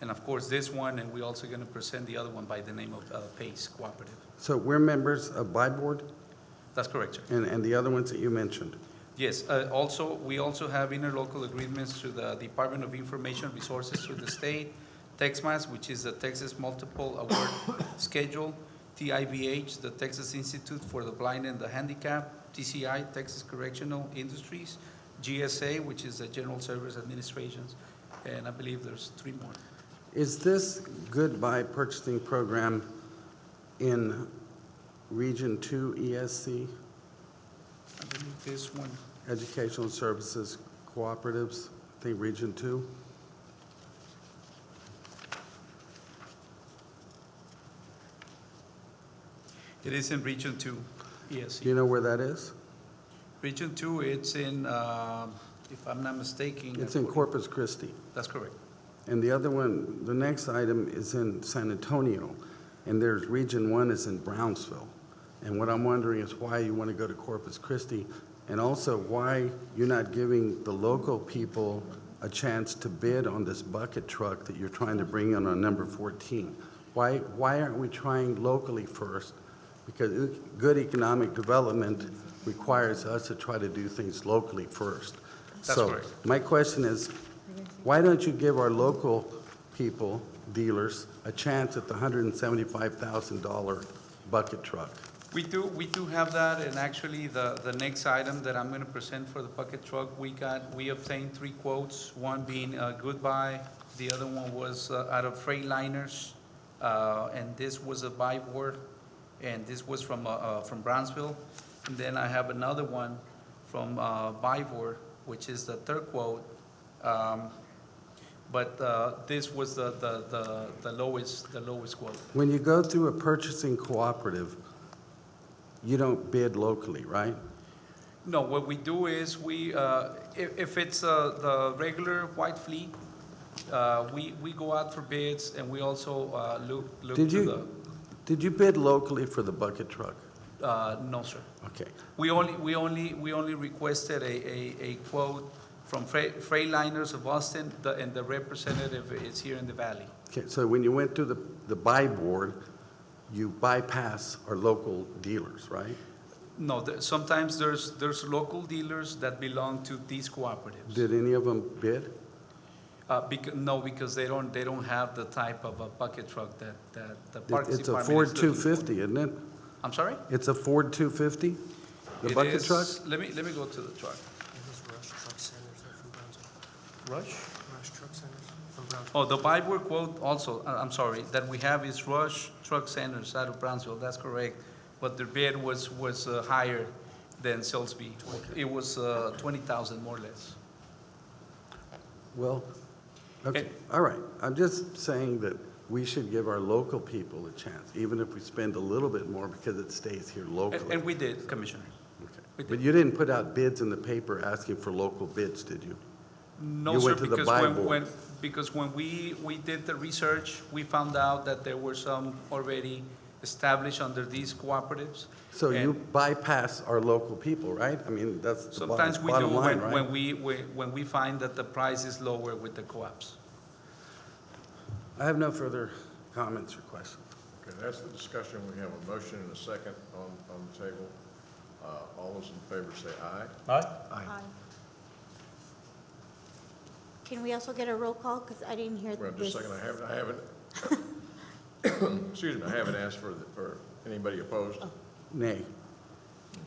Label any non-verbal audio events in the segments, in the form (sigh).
And of course, this one, and we're also gonna present the other one by the name of uh, Pace Cooperative. So we're members of BIBORD That's correct, sir. and, and the other ones that you mentioned. Yes, uh, also, we also have interlocal agreements to the Department of Information Resources through the state, TexMAS, which is the Texas Multiple Award (coughs) Schedule, TIVH, the Texas Institute for the Blind and the Handicapped, TCI, Texas Correctional Industries, GSA, which is the General Service Administrations, and I believe there's three more. Is this goodbye purchasing program in Region Two E ESC, I believe this one, Educational Services Cooperatives, I think Region Two? it is in Region Two, ESC. Do you know where that is? Region Two, it's in, um, if I'm not mistaken. It's in according- Corpus Christi. That's correct. And the other one, the next item is in San Antonio, and there's, Region One is in Brownsville. And what I'm wondering is why you want to go to Corpus Christi, and also why you're not giving the local people a chance to bid on this bucket truck that you're trying to bring in on number 14? Why, why aren't we trying locally first? Because e- good economic development requires us to try to do things locally first. That's So, correct. my question is, why don't you give our local people, dealers, a chance at the $175,000 bucket truck? We do, we do have that, and actually, the, the next item that I'm gonna present for the bucket truck, we got, we obtained three quotes, one being uh, Goodbye, the other one was uh, out of Freightliners, uh, and this was a buy board, and this was from, uh, uh, from Brownsville. And then I have another one from uh, Bivor, which is the third quote. Um, But uh, this was the, the, the- the lowest, the lowest quote. When you go through a purchasing cooperative, you don't bid locally, right? No, what we do is we, uh, if if it's uh, the regular white fleet, uh, we we go out for bids and we also uh, look look Did to you, did you bid locally for the bucket truck? the, uh, no, sir. Okay. We only, we only, we only requested a a a quote from Fre- Freightliners of Austin, the- and the representative is here in the valley. Okay, so when you went through the, the buy board, you bypass our local dealers, right? No, there- sometimes there's, there's local dealers that belong to these cooperatives. Did any of them bid? Uh, becau- No, because they don't, they don't have the type of a bucket truck that that the Parks Department is It's a Ford looking for. 250, isn't it? I'm sorry? It's a Ford 250? The It bucket is- truck? Let me, let me go to the truck. It is Rush Truck Centers, they're from Brownsville. Rush? Rush Truck Centers from Brownsville. Oh, the Bible quote also, uh, I'm sorry, that we have is Rush Truck Centers out of Brownsville, that's correct. But their bid was, was uh, higher than Salisbury. It was uh, 20,000 more or less. Well, okay, Okay. all right. I'm just saying that we should give our local people a chance, even if we spend a little bit more because it stays here And- locally. And we did, Commissioner. Okay. we did. But you didn't put out bids in the paper asking for local bids, did you? No, You sir, went to the because when, Bible. when, because when we, we did the research, we found out that there were some already established under these cooperatives. So you And- bypass our local people, right? I mean, that's the Sometimes we bottom do bottom line, when, when right? we, when when we find that the price is lower with the co-ops. I have no further comments or questions. Okay, that's the discussion. We have a motion and a second on, on the table. Uh, all those in favor say aye. Aye. Um, Can we also get a roll call? Because I didn't hear Well, this. just a second, I haven't, (coughs) I haven't, excuse me, I haven't asked for, the- for anybody opposed. Nay.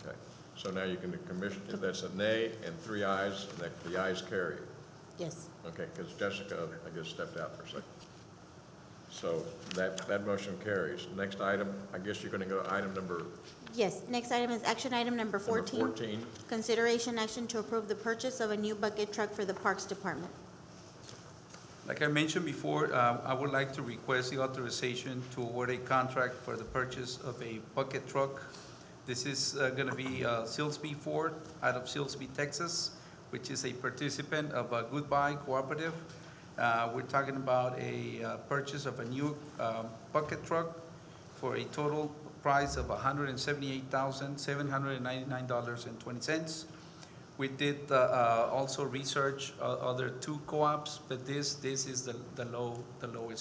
Okay, so now you can commission, that's a nay and three ayes, and that, the ayes carry. Yes. Okay, because Jessica, I guess, stepped out for a second. So that, that motion carries. Next item, I guess you're going to go to item number Yes. Next item is action item number number 14. 14. Consideration action to approve the purchase of a new bucket truck for the Parks Department. Like I mentioned before, uh, I would like to request the authorization to award a contract for the purchase of a bucket truck. This is uh, gonna be uh, Silsby Ford out of Silsby, Texas, which is a participant of a Goodbye Cooperative. Uh, We're talking about a uh, purchase of a new um, bucket truck for a total price of $178,799.20. We did uh, uh, also research uh, other two co-ops, but this, this is the the low, the lowest